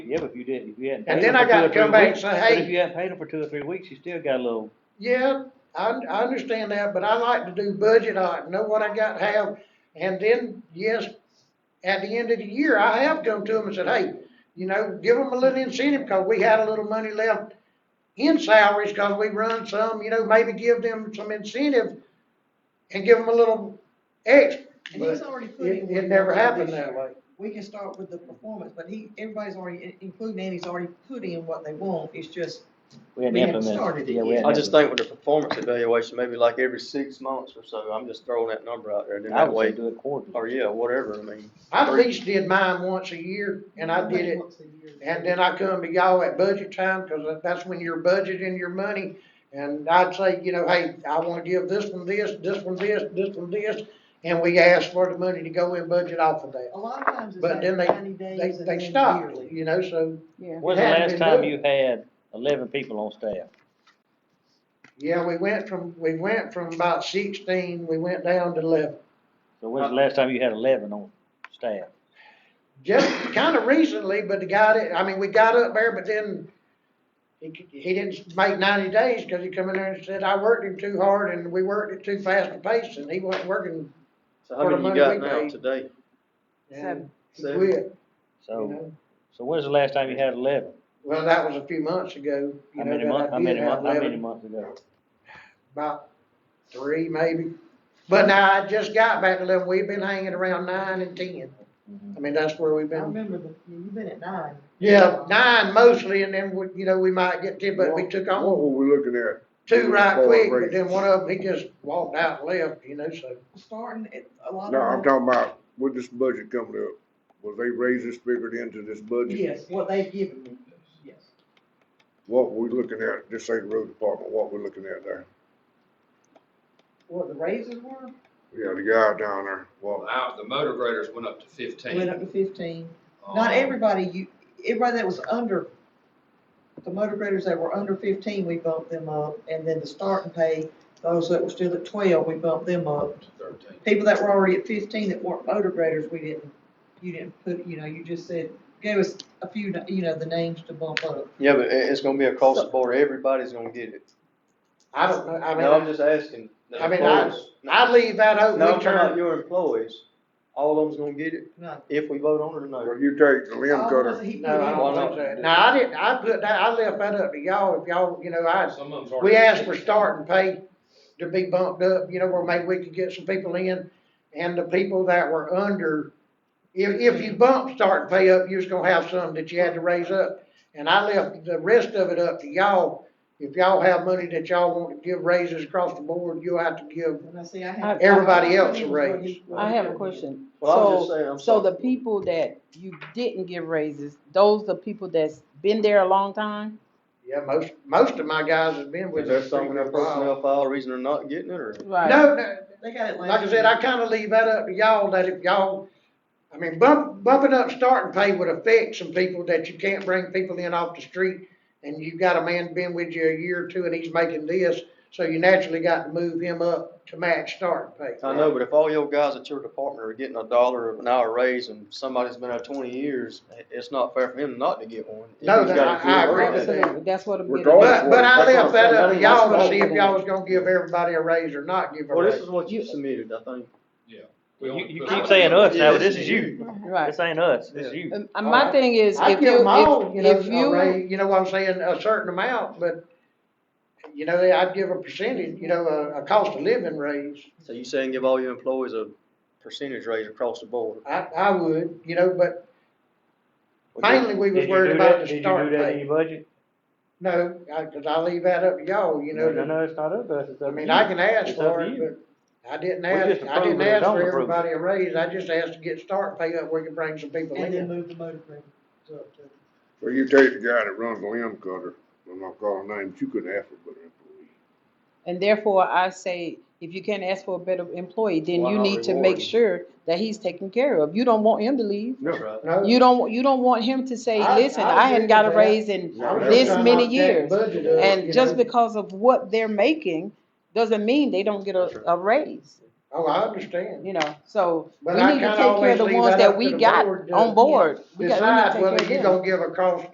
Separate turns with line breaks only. Yeah, but if you didn't, if you hadn't.
And
paid
then
them
I
for
gotta
two or
come
three
back and
weeks-
say,
But
"Hey."
if you hadn't paid them for two or three weeks, you still got a little,
Yeah, I, I understand that, but I like to do budget, I like to know what I got to have, and then, yes, at the end of the year, I have come to them and said, hey, you know, give them a little incentive, cause we had a little money left in salaries, cause we run some, you know, maybe give them some incentive and give them a little extra,
And
but
he's already put in.
it,
work
it never
already
happened
this
that
year.
way.
We can start with the performance, but he, everybody's already, including Andy's already put in what they want, it's just,
we hadn't
We haven't
implemented.
started it
Yeah, we
yet.
hadn't
I just
implemented.
think with the performance evaluation, maybe like every six months or so, I'm just throwing that number out there, then
I
that
would say
way,
do it quarterly.
or yeah, whatever, I mean.
I at least did mine once a year, and I did it And then I come to y'all at budget time, cause that's when you're budgeting your money. And I'd say, you know, hey, I wanna give this one this, this one this, this one this, and we ask for the money to go in budget off of that.
A lot of times it's
But
like
then they-
ninety
They,
days and then
they stopped,
yearly.
you know, so,
When's the
Hadn't
last
been
time
done.
you had eleven people on staff?
yeah, we went from, we went from about sixteen, we went down to eleven.
So when's
Uh,
the last time you had eleven on staff?
Just kinda recently, but the guy that, I mean, we got up there, but then he, he didn't make ninety days, cause he come in there and said, I worked him too hard and we worked at too fast a pace, and he wasn't working
So
For
how
the
many you
money
got
we
now
paid.
today?
and he
Seven.
quit. You
So,
know,
so when's the last time you had eleven?
Well, that was a few months ago, you
How
know,
many months,
that
how
I did
many
have
months, how many
eleven,
months ago?
about three maybe. But now I just got back to eleven, we've been hanging around nine and ten,
Mhm.
I mean, that's where we've
I
been.
remember the, you've been at nine. Um,
Yeah, nine mostly, and then, we you know, we might get ten, but we took
What
on
were we looking at?
two right
Forward
quick, but
rate.
then one of them, he just walked out and left, you know, so.
Starting at a lot of.
No, I'm
them-
talking about with this budget coming up, will they raise this figured into this budget?
Yes, what they've given me, yes.
What we looking at, this ain't road department, what we looking at there?
What the raises were,
Yeah, the guy down there, well,
Well, out, the motor graders went up to fifteen.
went up to fifteen.
Um,
Not everybody, you, everybody that was under, the motor graders that were under fifteen, we bumped them up, and then the starting pay, those that were still at twelve, we bumped them up.
to Thirteen.
People that were already at fifteen that weren't motor graders, we didn't, you didn't put, you know, you just said, gave us a few, you know, the names to bump up.
Yeah, but it, it's gonna be across the board, everybody's gonna get it.
I don't know, I
No, I'm
mean,
just asking. the
I mean, I-
employees.
I leave that
No,
open,
I'm
we
talking about
turn,
your employees, all of them's gonna get it
No.
if we vote on it or no.
well, you take the limb
All the ones
cutter,
that Oh, he put
no, I
in.
Why
don't
not?
think so. No, I didn't, I put that, I left that up to y'all, if y'all, you know, I,
Some of them's
We
already.
asked for starting pay to be bumped up, you know, where maybe we could get some people in, and the people that were under, if, if you bump starting pay up, you're just gonna have some that you had to raise up. And I left the rest of it up to y'all, if y'all have money that y'all want to give raises across the board, you have to give,
And I say I have-
Everybody else a raise.
I have a question.
Well, I was
So,
just saying, I'm
so
sorry.
the people that you didn't give raises, those the people that's been there a long time?
yeah, most, most of my guys have been
Is
with
there
us. for
something in
a
their
while.
personnel file, reason they're not getting it, or?
Right.
No, no,
They got it last.
Like I said,
year.
I kinda leave that up to y'all, that if y'all, I mean, bump, bumping up starting pay would affect some people that you can't bring people in off the street. And you've got a man been with you a year or two and he's making this, so you naturally got to move him up to match starting pay.
I know, but if all your guys at your department are getting a dollar an hour raise and somebody's been there twenty years, it- it's not fair for him not to get one. If
No,
he's
that-
got a
I- I
good
agree
work
with
ethic.
Absolutely, that's what I'm getting
Regardless
at.
But, but I
That's what I'm
left that
saying.
up
I
to
mean, that's
y'all
what
to
I'm
see if
getting
y'all
at.
was gonna give everybody a raise or not give a
Well, this
raise.
is what you
You-
submitted, I think.
We
You,
only
you
put
keep
out-
saying us now, but
Yeah,
this is you.
Right.
This ain't us, this is you.
Um, uh, My thing is,
I
if
give
you,
them all, you know,
if, if
a
you,
raise, you know what I'm saying, a certain amount, but, you know, I'd give a percentage, you know, a, a cost of living raise.
So you saying give all your employees a percentage raise across the board?
I, I would, you know, but
Well,
mainly we was
Did you
worried
do
about
that?
the start
Did you do that in
pay.
your budget?
No, I, cause I leave that up to y'all, you
No,
know,
no, it's not up to us, it's up
I
to
mean,
you.
I can ask
It's up
for
to
it,
you.
but I didn't
We just
ask, I
approve
didn't
it or
ask
don't
for
approve it.
everybody a raise, I just asked to get start pay up, we can bring some people
And then
in.
move the motor grader up to.
so you take the guy that runs the limb cutter, I'm not calling names, you couldn't ask for a better employee.
and therefore I say, if you can't ask for a better employee, then
Why
you
not
need to
reward
make
him?
sure that he's taken care of. You don't want him to leave.
That's right.
No,
You don't, you don't want him to say,
I-
listen,
I
I
agree
hadn't got a
with that.
raise in
I was just
this
trying to
many
knock that
years.
budget up, you
And just
know.
because of what they're making, doesn't mean they don't get
That's
a,
right.
a raise.
Oh, I understand.
you know, so we
But I
need to
kinda
take care of
always
the
leave
ones
that
that
up to
we
the
got
board to
on board. We got- we need to
Decide
take care
whether
of
you're
them.
gonna give a cost